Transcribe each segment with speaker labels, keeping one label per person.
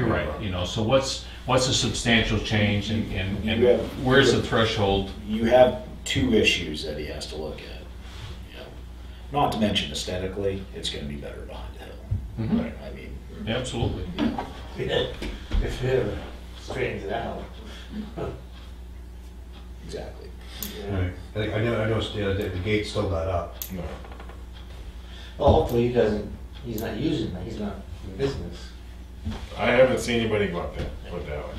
Speaker 1: Right, you know, so what's, what's a substantial change and, and
Speaker 2: You
Speaker 1: and
Speaker 2: have-
Speaker 1: where's the threshold?
Speaker 2: you have two issues that he has to look at. You know, not to mention aesthetically, it's going to be better behind the hill. Right. I mean,
Speaker 1: Absolutely.
Speaker 3: If it straightens it out.
Speaker 2: exactly.
Speaker 3: yeah.
Speaker 4: Right. I think- I know, I noticed the other day, the gate's still not up.
Speaker 3: Well, hopefully he doesn't, he's not using that, he's not in business.
Speaker 5: I haven't seen anybody go up there, put it that way.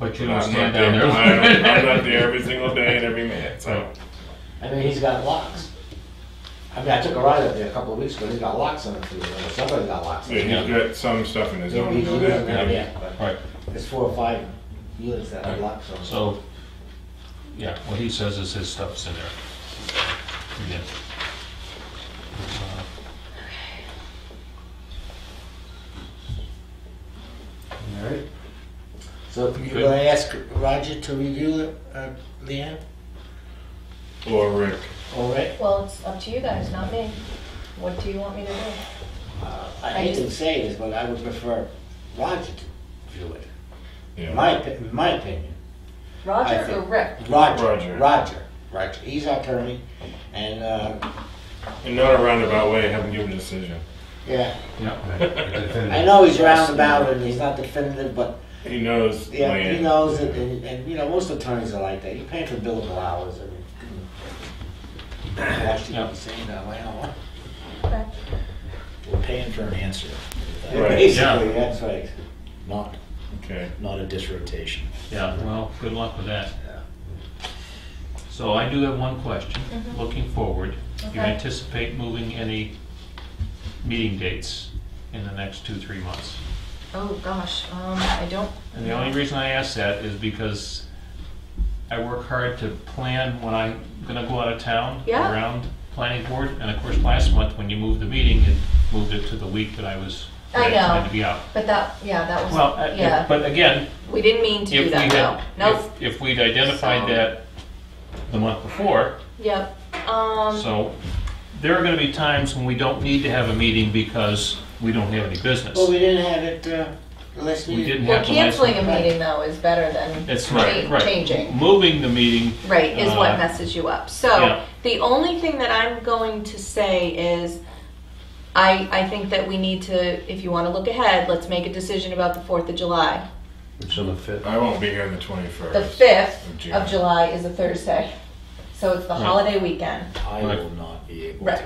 Speaker 1: But you
Speaker 5: I'm
Speaker 1: don't
Speaker 5: not
Speaker 1: stand down
Speaker 5: there-
Speaker 1: there.
Speaker 5: I'm I'm not there every single day and every minute, so.
Speaker 3: I mean, he's got locks. I mean, I took a ride up there a couple of weeks ago, he's got locks on it too, or somebody's got locks on
Speaker 5: Yeah,
Speaker 3: it.
Speaker 5: he's got some stuff in his
Speaker 3: Maybe
Speaker 5: own,
Speaker 3: he's
Speaker 5: know
Speaker 3: using
Speaker 5: that.
Speaker 3: that,
Speaker 5: yeah.
Speaker 3: yeah, but
Speaker 1: Right,
Speaker 3: there's four or five units that have locks on it.
Speaker 1: so, yeah, what he says is his stuff's in there. Yeah.
Speaker 4: All right.
Speaker 3: So if you're gonna ask Roger to review it, uh, Leanne,
Speaker 5: Or Rick,
Speaker 3: all right?
Speaker 6: Well, it's up to you guys, not me. What do you want me to do?
Speaker 3: Uh, I hate to say this, but I would prefer Roger to view it.
Speaker 5: yeah.
Speaker 3: In my, opi- in my opinion, I
Speaker 6: Roger or
Speaker 3: think-
Speaker 6: Rick?
Speaker 3: Roger,
Speaker 5: Roger.
Speaker 3: Roger, Roger, he's our attorney, and, uh,
Speaker 5: In not a roundabout way, have him give a decision.
Speaker 3: yeah,
Speaker 1: Yeah,
Speaker 4: Right, the definitive.
Speaker 3: I know he's roundabout and he's not definitive, but,
Speaker 5: He knows.
Speaker 3: yeah, he
Speaker 5: land.
Speaker 3: knows it, and, and, you know, most attorneys are like that, you pay for billable hours, and actually,
Speaker 1: Yeah.
Speaker 3: I'm saying that, wow,
Speaker 6: Okay.
Speaker 2: We're paying for an answer,
Speaker 5: Right,
Speaker 3: basically, that's right,
Speaker 2: not
Speaker 5: Okay.
Speaker 2: not a disrotation.
Speaker 1: yeah, well, good luck with that. So I do have one question,
Speaker 6: Mhm.
Speaker 1: looking forward. Do you
Speaker 6: Okay.
Speaker 1: anticipate moving any meeting dates in the next two, three months?
Speaker 6: Oh, gosh, um, I don't.
Speaker 1: And the only reason I ask that is because I work hard to plan when I'm gonna go out of town
Speaker 6: Yeah.
Speaker 1: around planning board. And of course, last month, when you moved the meeting, it moved it to the week that I was
Speaker 6: I
Speaker 1: that had
Speaker 6: know.
Speaker 1: to be out.
Speaker 6: But that, yeah, that was,
Speaker 1: Well, I- if-
Speaker 6: yeah,
Speaker 1: but again,
Speaker 6: we didn't mean to
Speaker 1: if
Speaker 6: do
Speaker 1: we had,
Speaker 6: that, no. Nope,
Speaker 1: if- if we'd identified
Speaker 6: So-
Speaker 1: that the month before,
Speaker 6: yep, um,
Speaker 1: so there are gonna be times when we don't need to have a meeting because we don't have any business.
Speaker 3: well, we didn't have it, uh, unless
Speaker 1: We didn't
Speaker 3: we,
Speaker 6: well,
Speaker 1: have the last one.
Speaker 6: canceling a meeting though is better than
Speaker 1: That's right,
Speaker 6: cha-
Speaker 1: right.
Speaker 6: changing.
Speaker 1: Moving the meeting
Speaker 6: Right, is
Speaker 1: Uh,
Speaker 6: what messes you up.
Speaker 1: yeah.
Speaker 6: So, the only thing that I'm going to say is, I, I think that we need to, if you wanna look ahead, let's make a decision about the Fourth of July.
Speaker 4: It's on the fifth.
Speaker 5: I won't be here on the 21st.
Speaker 6: The fifth
Speaker 5: Of June.
Speaker 6: of July is a Thursday, so it's the
Speaker 1: Right.
Speaker 6: holiday weekend.
Speaker 2: I
Speaker 1: Right.
Speaker 2: will not be able
Speaker 6: Right.
Speaker 2: to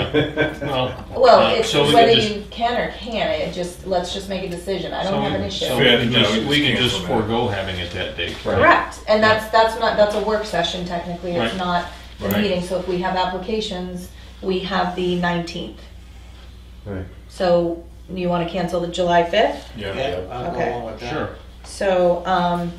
Speaker 2: go to that.
Speaker 1: Well, uh,
Speaker 6: Well, it's
Speaker 1: so we
Speaker 6: whether
Speaker 1: could just-
Speaker 6: you can or can't, it just, let's just make a decision, I
Speaker 1: so
Speaker 6: don't have
Speaker 1: we-
Speaker 6: an issue.
Speaker 1: So we can
Speaker 5: Yeah, no,
Speaker 1: just,
Speaker 5: we
Speaker 1: we can
Speaker 5: just
Speaker 1: just
Speaker 5: cancel that.
Speaker 1: forego having it that day.
Speaker 6: Correct, and that's, that's not, that's a work session technically,
Speaker 1: Right.
Speaker 6: it's not the
Speaker 5: Right.
Speaker 6: meeting, so if we have applications, we have the nineteenth.
Speaker 4: Right.
Speaker 6: So you want to cancel the July 5th?
Speaker 5: Yeah.
Speaker 3: yeah, I'll go
Speaker 6: Okay.
Speaker 3: along with that.
Speaker 1: Sure.
Speaker 6: So um,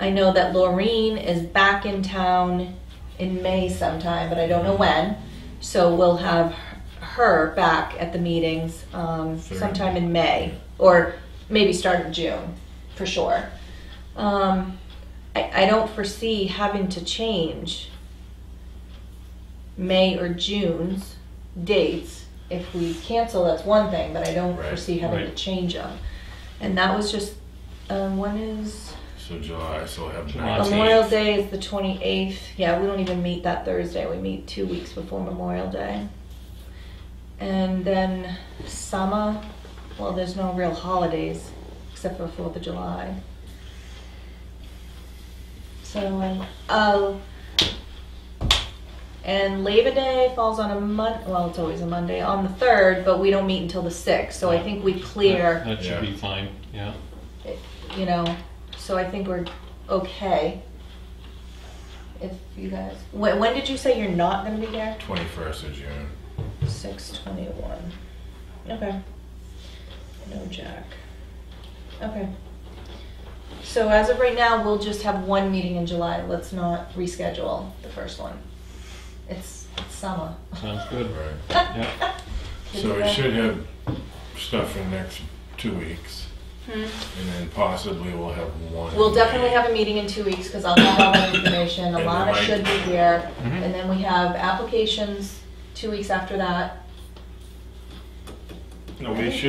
Speaker 6: I know that Laureen is back in town in May sometime, but I don't know when. So we'll have her back at the meetings um,
Speaker 5: Fair.
Speaker 6: sometime in May or maybe start of June for sure. Um, I, I don't foresee having to change May or June's dates. If we cancel, that's one thing, but I don't
Speaker 5: Right,
Speaker 6: foresee having to
Speaker 1: right.
Speaker 6: change them. And that was just, um, when is,
Speaker 5: So July, so we'll have the
Speaker 1: July.
Speaker 5: 19th.
Speaker 6: Memorial Day is the twenty-eighth, yeah, we don't even meet that Thursday, we meet two weeks before Memorial Day. And then summer, well, there's no real holidays, except for Fourth of July. So, um, oh, and Labor Day falls on a Mon, well, it's always a Monday, on the third, but we don't meet until the sixth, so I think we clear
Speaker 1: That should be
Speaker 5: Yeah.
Speaker 1: fine, yeah.
Speaker 6: you know, so I think we're okay. If you guys, when, when did you say you're not gonna be here?
Speaker 5: 21st of June.
Speaker 6: Six twenty-one. Okay. No Jack. Okay. So as of right now, we'll just have one meeting in July. Let's not reschedule the first one. It's it's summer.
Speaker 1: Sounds good.
Speaker 5: Right.
Speaker 1: Yeah.
Speaker 5: So we should have stuff in the next two weeks.
Speaker 6: Hmm.
Speaker 5: And then possibly we'll have one.
Speaker 6: We'll definitely have a meeting in two weeks, because I'll have all the information,
Speaker 5: And then
Speaker 6: Alana
Speaker 5: I-
Speaker 6: should be here,
Speaker 1: Mhm.
Speaker 6: and then we have applications two weeks after that.
Speaker 5: No, we should